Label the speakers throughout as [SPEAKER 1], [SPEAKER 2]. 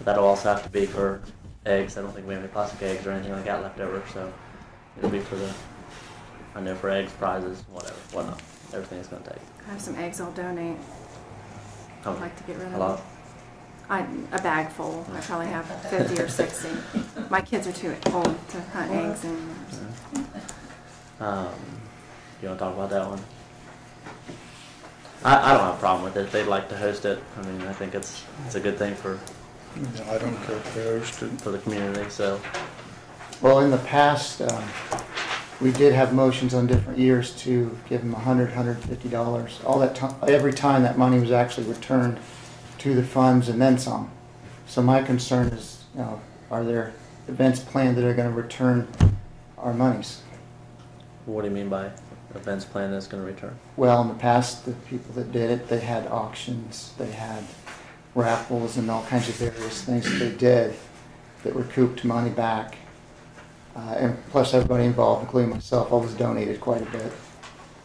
[SPEAKER 1] But that'll also have to be for eggs. I don't think we have any plastic eggs or anything like that left over, so it'll be for the, I know for eggs, prizes, whatever, whatnot. Everything it's going to take.
[SPEAKER 2] I have some eggs I'll donate.
[SPEAKER 1] Oh,
[SPEAKER 2] I'd like to get rid of
[SPEAKER 1] a lot.
[SPEAKER 2] I, a bag full. I probably have 50 or 60. My kids are too old to hunt eggs anymore. so.
[SPEAKER 1] Um, you want to talk about that one? I, I don't have a problem with it. They'd like to host it. I mean, I think it's it's a good thing for
[SPEAKER 3] Yeah, I don't care if they host it.
[SPEAKER 1] for the community. So
[SPEAKER 4] Well, in the past, um, we did have motions on different years to give them a hundred, hundred fifty dollars. All that time, every time that money was actually returned to the funds and then some. So my concern is, you know, are there events planned that are gonna return our monies?
[SPEAKER 1] what do you mean by events plan that's going to return?
[SPEAKER 4] Well, in the past, the people that did it, they had auctions, they had raffles and all kinds of various things that they did that recouped money back. Uh, and plus everybody involved, including myself, always donated quite a bit.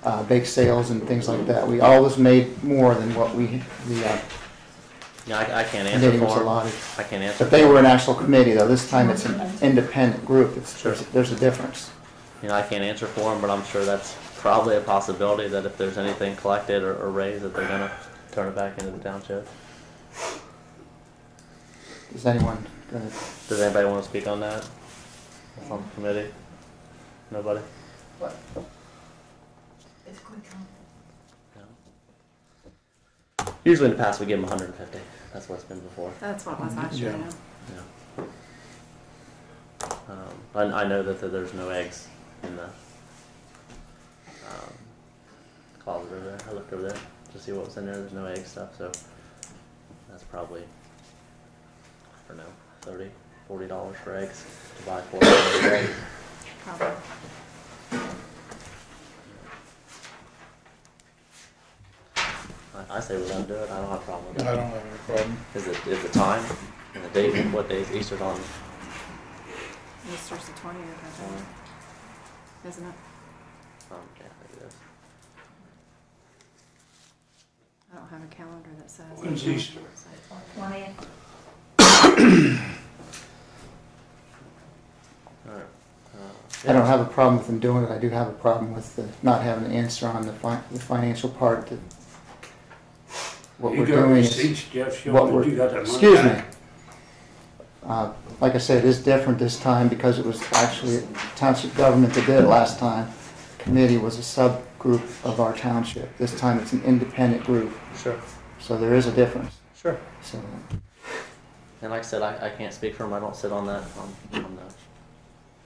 [SPEAKER 4] Uh, bake sales and things like that. We always made more than what we, the, uh,
[SPEAKER 1] Yeah, I, I can't answer
[SPEAKER 4] committee
[SPEAKER 1] for
[SPEAKER 4] was
[SPEAKER 1] 'em.
[SPEAKER 4] allotted.
[SPEAKER 1] I can't answer.
[SPEAKER 4] But they were an actual committee though. This time it's an independent group. It's,
[SPEAKER 1] Sure.
[SPEAKER 4] there's, there's a difference.
[SPEAKER 1] You know, I can't answer for them, but I'm sure that's probably a possibility that if there's anything collected or, or raised, that they're gonna turn it back into the township.
[SPEAKER 4] Is anyone gonna,
[SPEAKER 1] Does anybody want to speak on that? That's on the committee? Nobody?
[SPEAKER 5] What? It's quick, huh?
[SPEAKER 1] No. Usually in the past, we give them 150. That's what it's been before.
[SPEAKER 2] That's what it was last year. I
[SPEAKER 3] Yeah.
[SPEAKER 2] know.
[SPEAKER 1] Yeah. Um, I, I know that th- there's no eggs in the um, closet over there. I looked over there to see what was in there. There's no egg stuff, so that's probably, I don't know, 30 $40 for eggs to buy four eggs.
[SPEAKER 2] Probably.
[SPEAKER 1] I, I say we don't do it. I don't have a problem
[SPEAKER 3] I
[SPEAKER 1] with
[SPEAKER 3] don't
[SPEAKER 1] that.
[SPEAKER 3] have any problem.
[SPEAKER 1] Is it is the time and the date? and What days? Easter's on. um,
[SPEAKER 2] Easter's the 20th, I think, isn't it?
[SPEAKER 1] Um, yeah, I think it is.
[SPEAKER 2] I don't have a calendar that says.
[SPEAKER 6] When's Easter?
[SPEAKER 5] Twentieth.
[SPEAKER 1] All right. Uh,
[SPEAKER 4] I don't have a problem with them doing it. I do have a problem with the, not having an answer on the fi- the financial part that what we're
[SPEAKER 6] You got
[SPEAKER 4] doing is.
[SPEAKER 6] receipts, Jeff,
[SPEAKER 4] what
[SPEAKER 6] showing
[SPEAKER 4] we're
[SPEAKER 6] that you got that money
[SPEAKER 4] Excuse me.
[SPEAKER 6] back?
[SPEAKER 4] Uh, Like I said, it is different this time because it was actually township government that did it last time. Committee was a subgroup of our township. This time it's an independent group,
[SPEAKER 1] Sure.
[SPEAKER 4] so there is a difference.
[SPEAKER 1] Sure.
[SPEAKER 4] So,
[SPEAKER 1] And like I said, I, I can't speak for them. I don't sit on that on, on the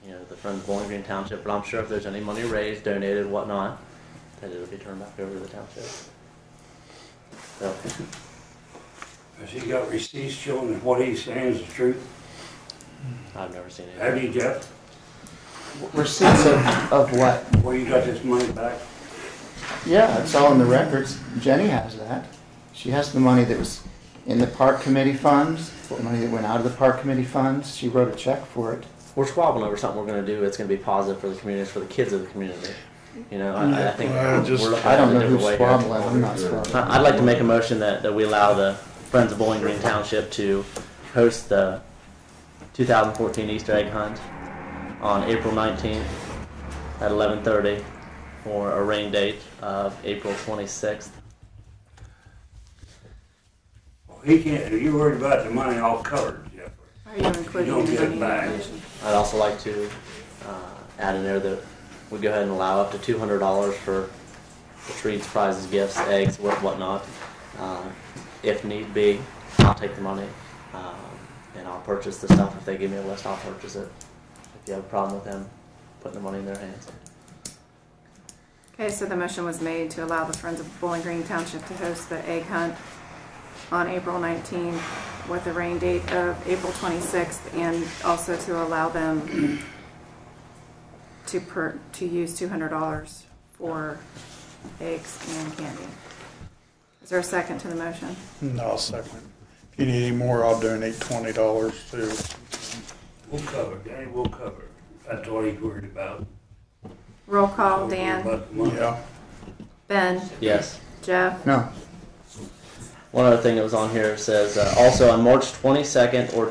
[SPEAKER 1] you know the Friends of Bowling Green Township, but I'm sure if there's any money raised, donated, whatnot, that it'll be turned back over to the township. So
[SPEAKER 6] Has he got receipts showing that what he's saying is the truth?
[SPEAKER 1] I've never seen
[SPEAKER 6] Have
[SPEAKER 1] anything.
[SPEAKER 6] you, Jeff?
[SPEAKER 4] receipts of, of what?
[SPEAKER 6] Where you got this money back?
[SPEAKER 4] Yeah, it's all in the records. Jenny has that. She has the money that was in the park committee funds, the money that went out of the park committee funds. She wrote a check for it.
[SPEAKER 1] We're squabbling over something we're going to do. It's going to be positive for the community, it's for the kids of the community. You know, I, I think
[SPEAKER 3] Yeah, I just-
[SPEAKER 1] we're looking at
[SPEAKER 4] I
[SPEAKER 1] it
[SPEAKER 4] don't
[SPEAKER 1] a
[SPEAKER 4] know
[SPEAKER 1] different way
[SPEAKER 4] who's
[SPEAKER 1] here.
[SPEAKER 4] squabbling, I'm not squabbling.
[SPEAKER 1] I- I'd like to make a motion that, that we allow the Friends of Bowling Green Township to host the 2014 Easter egg hunt on April 19th at 11:30 for a rain date of April 26th.
[SPEAKER 6] Well, He can't, you're worried about the money all covered, Jeff.
[SPEAKER 2] Are you including
[SPEAKER 6] don't
[SPEAKER 2] it
[SPEAKER 6] get
[SPEAKER 2] in
[SPEAKER 6] it
[SPEAKER 2] the
[SPEAKER 6] back.
[SPEAKER 2] information?
[SPEAKER 1] I'd also like to uh, add in there that we go ahead and allow up to $200 for the treats, prizes, gifts, eggs, what whatnot. Uh, if need be, I'll take the money um, and I'll purchase the stuff. If they give me a list, I'll purchase it. If you have a problem with them putting the money in their hands,
[SPEAKER 2] Okay, so the motion was made to allow the Friends of Bowling Green Township to host the egg hunt on April 19th with a rain date of April 26th and also to allow them to per, to use $200 for eggs and candy. Is there a second to the motion?
[SPEAKER 3] No, I'll second. If you need any more, I'll donate twenty dollars to,
[SPEAKER 6] We'll cover, it, Danny, we'll cover. it. That's all he's worried about.
[SPEAKER 2] Roll call,
[SPEAKER 6] He's worried
[SPEAKER 2] Dan,
[SPEAKER 6] about the money.
[SPEAKER 3] yeah.
[SPEAKER 2] Ben,
[SPEAKER 1] yes.
[SPEAKER 2] Jeff,
[SPEAKER 4] No,
[SPEAKER 1] One other thing that was on here says, uh, also on March twenty-second or